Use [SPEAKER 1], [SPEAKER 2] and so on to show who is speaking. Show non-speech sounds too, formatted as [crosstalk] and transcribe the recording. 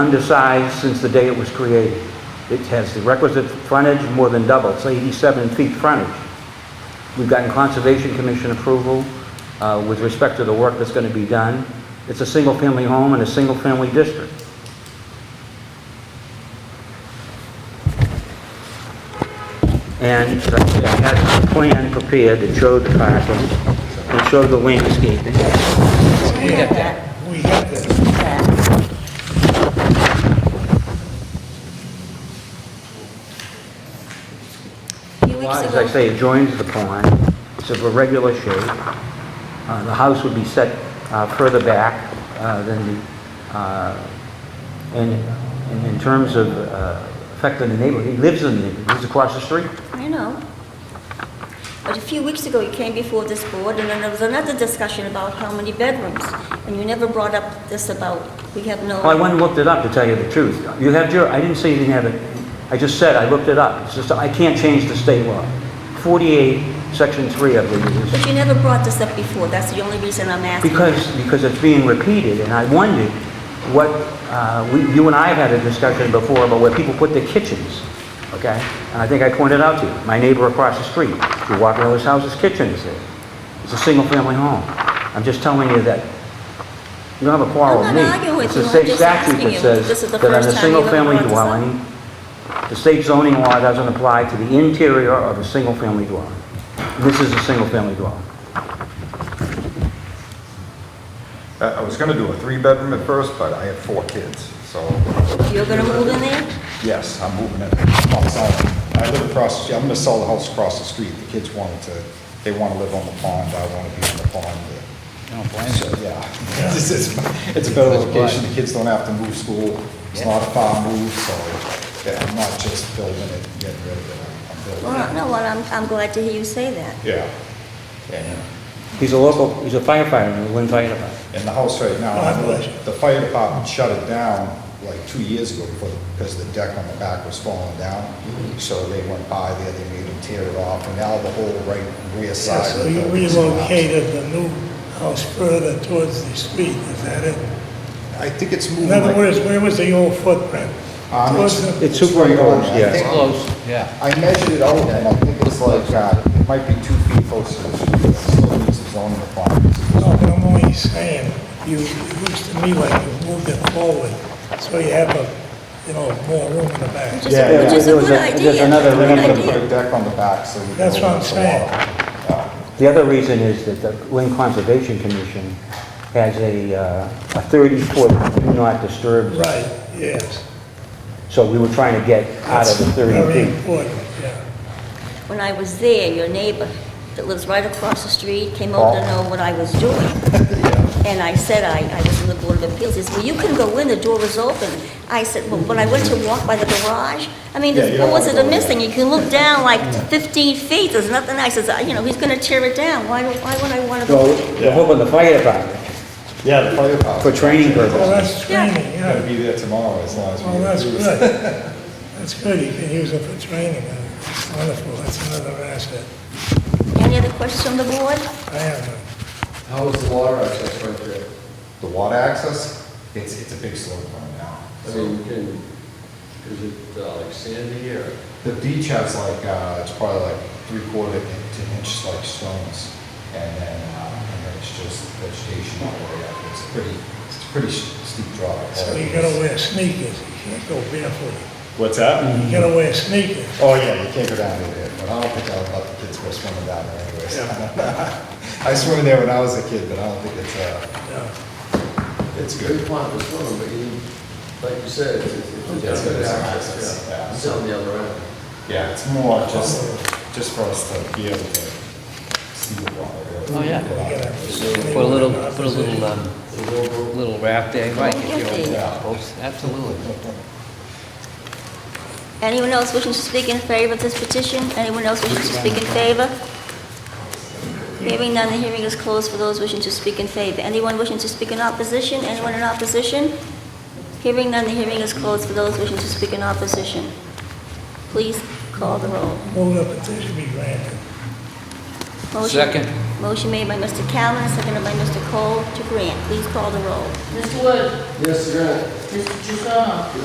[SPEAKER 1] undersized since the day it was created. It has the requisite frontage, more than double, it's 87 feet frontage. We've gotten Conservation Commission approval uh, with respect to the work that's going to be done. It's a single-family home in a single-family district. And I had a plan prepared that showed the parking, and showed the landscaping.
[SPEAKER 2] We have that. We have that.
[SPEAKER 3] few weeks
[SPEAKER 1] As I
[SPEAKER 3] ago,
[SPEAKER 1] say, it joins the pond, it's of a regular shape. Uh, The house would be set uh, further back uh, than the, uh, and and in terms of uh, affecting the neighborhood, he lives in, the- he lives across the street.
[SPEAKER 3] I know. But a few weeks ago, you came before this board, and then there was another discussion about how many bedrooms, and you never brought up this about, we have no...
[SPEAKER 1] Well, I went and looked it up, to tell you the truth. You have your, I didn't say you didn't have it, I just said, I looked it up. It's just, I can't change the state law. 48, section 3, I believe it is.
[SPEAKER 3] But you never brought this up before, that's the only reason I'm asking.
[SPEAKER 1] Because, because it's being repeated, and I wondered what, uh, we, you and I have had a discussion before about where people put their kitchens, okay? And I think I pointed out to you, my neighbor across the street, if you walk around his house, his kitchen is there. It's a single-family home. I'm just telling you that, you don't have a quarrel with
[SPEAKER 3] I'm
[SPEAKER 1] me.
[SPEAKER 3] not arguing with
[SPEAKER 1] It's the
[SPEAKER 3] you, I'm
[SPEAKER 1] state
[SPEAKER 3] just
[SPEAKER 1] statute
[SPEAKER 3] asking
[SPEAKER 1] that
[SPEAKER 3] you.
[SPEAKER 1] says
[SPEAKER 3] This is the
[SPEAKER 1] that on
[SPEAKER 3] first
[SPEAKER 1] a
[SPEAKER 3] time you've ever
[SPEAKER 1] single-family
[SPEAKER 3] brought this up.
[SPEAKER 1] dwelling, the state zoning law doesn't apply to the interior of a single-family dwelling. This is a single-family dwelling.
[SPEAKER 4] I I was gonna do a three-bedroom at first, but I have four kids, so,
[SPEAKER 3] You're gonna move in there?
[SPEAKER 4] yes, I'm moving it. I'll sell it. I live across, the street. I'm gonna sell the house across the street. The kids wanted to, they wanna live on the pond, I wanna be on the pond. So, Yeah. [laughs] It's, it's- it's a better location, the kids don't have to move school, it's not a far move, so, yeah, I'm not just building it and getting rid of it, I'm- I'm
[SPEAKER 3] Well,
[SPEAKER 4] building it.
[SPEAKER 3] no, well, I'm, I'm glad to hear you say that.
[SPEAKER 4] Yeah. Yeah.
[SPEAKER 1] He's a local, he's a firefighter in the Lynn Fire Department.
[SPEAKER 4] In the house right now,
[SPEAKER 2] God bless Oh, you.
[SPEAKER 4] the fire department shut it down like two years ago before, because the deck on the back was falling down.
[SPEAKER 2] Mm-hmm.
[SPEAKER 4] So they went by there, they made them tear it off, and now the whole right rear side.
[SPEAKER 2] So
[SPEAKER 4] of the
[SPEAKER 2] you
[SPEAKER 4] building is collapsed.
[SPEAKER 2] relocated the new house further towards the street, is that it?
[SPEAKER 4] I think it's
[SPEAKER 2] In
[SPEAKER 4] moving
[SPEAKER 2] other
[SPEAKER 4] like.
[SPEAKER 2] words, where was the old footprint?
[SPEAKER 4] Um,
[SPEAKER 2] Towards the-
[SPEAKER 1] It's
[SPEAKER 4] right
[SPEAKER 1] superimposed,
[SPEAKER 4] on. I
[SPEAKER 1] yeah.
[SPEAKER 4] think-
[SPEAKER 5] yeah.
[SPEAKER 4] I measured it out, and I think it's like, uh, it might be two feet closer to the street, but still meets the zoning requirements.
[SPEAKER 2] No, but I'm only saying, you, it looks to me like you moved it forward, so you have a, you know, more room in the back.
[SPEAKER 3] Which is, a- which is a
[SPEAKER 1] there was
[SPEAKER 3] good
[SPEAKER 1] a- there's
[SPEAKER 3] idea.
[SPEAKER 1] another
[SPEAKER 4] They're
[SPEAKER 3] good
[SPEAKER 4] gonna put
[SPEAKER 3] idea.
[SPEAKER 4] a deck on the back, so. we can
[SPEAKER 2] That's what
[SPEAKER 4] open
[SPEAKER 2] I'm
[SPEAKER 4] up the
[SPEAKER 2] saying.
[SPEAKER 4] water.
[SPEAKER 1] The other reason is that the Lynn Conservation Commission has a, uh, a 30-foot do not disturb. zone.
[SPEAKER 2] Right, yes.
[SPEAKER 1] So we were trying to get out of the
[SPEAKER 2] That's
[SPEAKER 1] 30
[SPEAKER 2] Very
[SPEAKER 1] feet.
[SPEAKER 2] important, yeah.
[SPEAKER 3] When I was there, your neighbor that lives right across the street came over to
[SPEAKER 4] Oh.
[SPEAKER 3] know what I was
[SPEAKER 4] [laughs]
[SPEAKER 3] doing. And I said, I, I was in the Board of Appeals, he said, well, you can go in, the door was open. I said, well, when I went to walk by the garage, I mean,
[SPEAKER 4] Yeah,
[SPEAKER 3] there's
[SPEAKER 4] you don't
[SPEAKER 3] boards
[SPEAKER 4] wanna
[SPEAKER 3] that are
[SPEAKER 4] go in.
[SPEAKER 3] missing, you can look down like fifteen feet, there's nothing, I says, you know, he's gonna tear it down, why, don't- why would I wanna
[SPEAKER 1] So
[SPEAKER 3] go? in?"
[SPEAKER 1] we're hoping the fire department,
[SPEAKER 4] Yeah, the fire department.
[SPEAKER 1] for training
[SPEAKER 2] Well,
[SPEAKER 1] purposes.
[SPEAKER 2] that's training,
[SPEAKER 4] Gotta
[SPEAKER 2] yeah.
[SPEAKER 4] be there tomorrow as long as we.
[SPEAKER 2] Well, that's
[SPEAKER 4] do
[SPEAKER 2] good.
[SPEAKER 4] this.
[SPEAKER 2] That's good, you can use it for training, that's wonderful, that's another asset.
[SPEAKER 3] Any other questions on the board?
[SPEAKER 2] I have none.
[SPEAKER 6] How is the water access right there?
[SPEAKER 4] The water access, it's, it's a big slope right now.
[SPEAKER 6] I mean, you can, is it uh, like sandy or?
[SPEAKER 4] The beach has like, uh, it's probably like three quarter to an inch like stones. And then, uh, and then it's just vegetation all the way up. It's a pretty, it's a pretty s- steep drop.
[SPEAKER 2] So you gotta wear sneakers, you can't go barefoot.
[SPEAKER 4] What's that?
[SPEAKER 2] You gotta wear sneakers.
[SPEAKER 4] Oh, yeah, you can't go down in there, but I don't think I'll let the kids go swimming down there anyways. [laughs] I swam in there when I was a kid, but I don't think it's, uh,
[SPEAKER 2] Yeah.
[SPEAKER 4] it's
[SPEAKER 6] a
[SPEAKER 4] good.
[SPEAKER 6] Good plan for swimming, but you, like you said, it's, it's- it's.
[SPEAKER 4] It's good access, yeah.
[SPEAKER 6] It's on the other end.
[SPEAKER 4] Yeah, it's more just, just for us to be able to see the water. really.
[SPEAKER 5] Oh, yeah.
[SPEAKER 2] Yeah.
[SPEAKER 5] Put a little, put a little, um,
[SPEAKER 6] Little-
[SPEAKER 5] little wrap there, right, if
[SPEAKER 3] Okay.
[SPEAKER 5] you're, absolutely.
[SPEAKER 3] Anyone else wishing to speak in favor of this petition? Anyone else wishing to speak in favor? Hearing none, the hearing is closed for those wishing to speak in favor. Anyone wishing to speak in opposition? Anyone in opposition? Hearing none, the hearing is closed for those wishing to speak in opposition. Please call the roll.
[SPEAKER 2] Move the petition be granted.
[SPEAKER 3] Motion-
[SPEAKER 5] Second,
[SPEAKER 3] Motion made by Mr. Callen, seconded by Mr. Cole to grant. Please call the roll.
[SPEAKER 7] Mr. Wood?
[SPEAKER 6] Yes, sir.
[SPEAKER 7] Mr. Jussono?